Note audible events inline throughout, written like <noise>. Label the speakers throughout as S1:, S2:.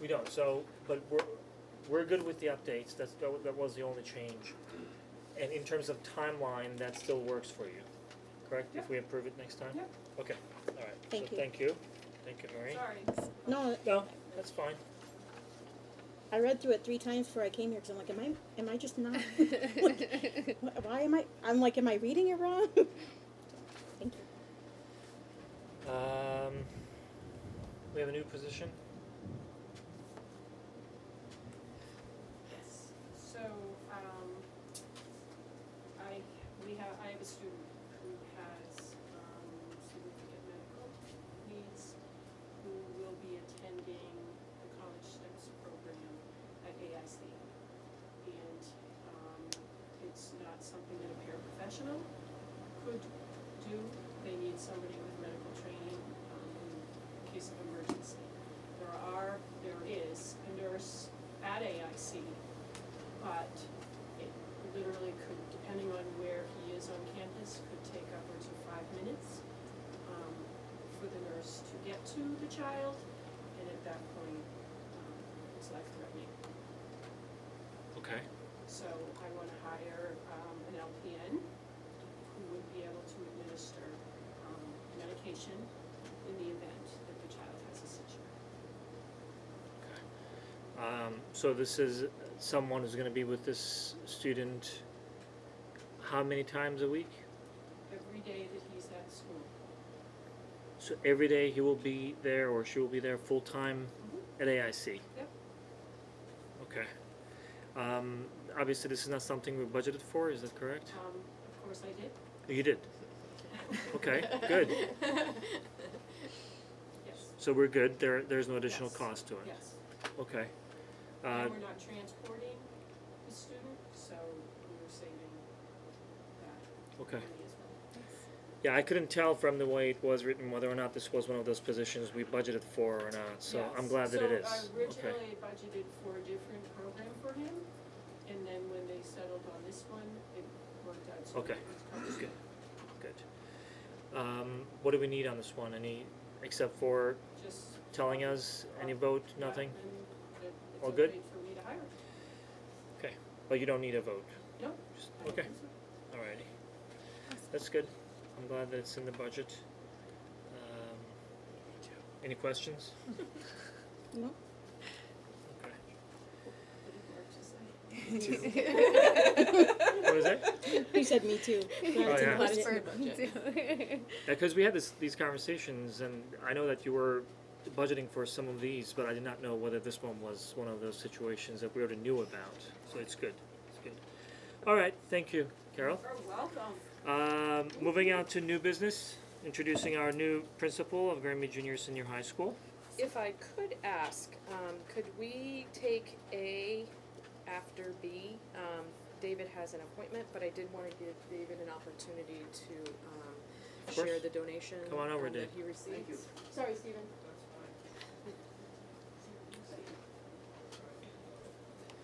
S1: We don't, so, but we're, we're good with the updates, that's, that wa- that was the only change. And in terms of timeline, that still works for you, correct? If we approve it next time?
S2: Yeah.
S1: Okay, all right.
S3: Thank
S1: So
S3: you.
S1: thank you, thank you, Marie.
S2: Sorry.
S3: No,
S1: No, that's fine.
S3: I read through it three times before I came here because I'm like, am I, am I just not? like, wh- why am I? I'm like, am I reading it wrong? <laughs> Thank you.
S1: Um, we have a new position?
S2: Yes. So, um, I, we have, I have a student who has, um, significant medical needs, who will be attending the College Steps program at AIC. And, um, it's not something that a paraprofessional could do. They need somebody with medical training, um, in case of emergency. There are, there is a nurse at AIC, but it literally could, depending on where he is on campus, could take upwards of five minutes um, for the nurse to get to the child, and at that point, um, it's life-threatening.
S1: Okay.
S2: So I wanna hire, um, an LPN who would be able to administer, um, medication in the event that the child has a seizure.
S1: Um, so this is someone who's gonna be with this student how many times a week?
S2: Every day that he's at school.
S1: So every day he will be there or she will be there full time at AIC?
S2: Yep.
S1: Okay. Um, obviously this is not something we budgeted for, is that correct?
S2: Um, of course I did,
S1: You did, okay, good.
S2: <laughs> Yes,
S1: So we're good, there, there's no additional
S2: Yes.
S1: cost to it?
S2: yes.
S1: Okay. Uh,
S2: And we're not transporting the student, so we're saving that
S1: okay.
S2: money as well.
S1: Yeah, I couldn't tell from the way it was written whether or not this was one of those positions we budgeted for or not, so I'm
S2: Yes.
S1: glad that it is.
S2: So I
S1: Okay.
S2: originally budgeted for a different program for him, and then when they settled on this one, it worked out so
S1: Okay.
S2: it was covered.
S1: Good. Good. Um, what do we need on this one? Any, except for
S2: Just.
S1: telling us, any vote, nothing?
S2: Yeah, and that it's
S1: All good?
S2: okay for me to hire.
S1: But you don't need a vote?
S2: No.
S1: Just-
S2: I don't
S1: Okay,
S2: think so.
S1: alrighty. That's good. I'm glad that it's in the budget. Um, any questions?
S3: No.
S1: Okay.
S2: Pretty hard to say.
S1: What is that?
S3: You said me too. Sorry,
S1: Oh,
S3: to
S1: yeah.
S3: put
S4: <laughs>
S3: it in
S4: Plattsburgh.
S3: the budget.
S1: Yeah, 'cause we had this, these conversations and I know that you were budgeting for some of these, but I did not know whether this one was one of those situations that we already knew about. So it's good, it's good. Alright, thank you, Carol.
S2: You're welcome.
S1: Um, moving on to new business, introducing our new principal of Granby Junior Senior High School.
S4: If I could ask, um, could we take A after B? Um, David has an appointment, but I did wanna give David an opportunity to, um,
S1: Of course.
S4: share the donation
S1: Come on over,
S4: um, that
S1: Dave.
S4: he received.
S5: Thank you.
S4: Sorry, Stephen.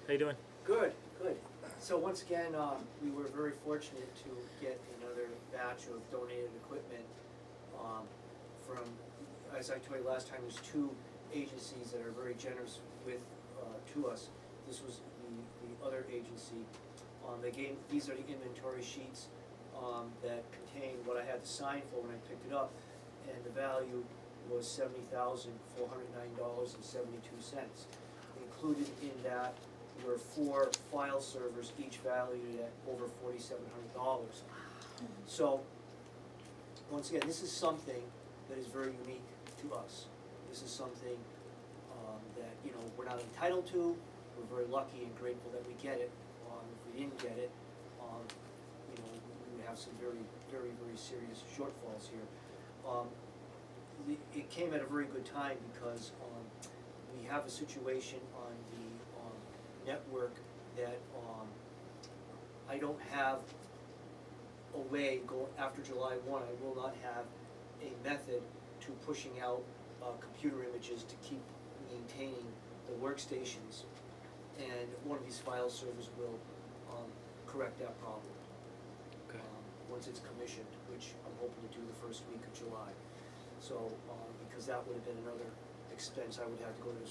S1: How you doing?
S5: Good, good. So once again, uh, we were very fortunate to get another batch of donated equipment, um, from, as I told you last time, there's two agencies that are very generous with, uh, to us. This was the, the other agency. Um, they gave, these are the inventory sheets, um, that contain what I had to sign for when I picked it up. And the value was seventy thousand, four hundred nine dollars and seventy-two cents. Included in that were four file servers, each valued at over forty-seven hundred dollars. So, once again, this is something that is very unique to us. This is something, um, that, you know, we're not entitled to, we're very lucky and grateful that we get it. Um, if we didn't get it, um, you know, we would have some very, very, very serious shortfalls here. Um, the, it came at a very good time because, um, we have a situation on the, um, network that, um, I don't have a way go, after July one, I will not have a method to pushing out, uh, computer images to keep maintaining the workstations. And one of these file servers will, um, correct that problem.
S1: Okay.
S5: um, Once it's commissioned, which I'm hoping to do the first week of July. So, um, because that would have been another expense I would have to go to the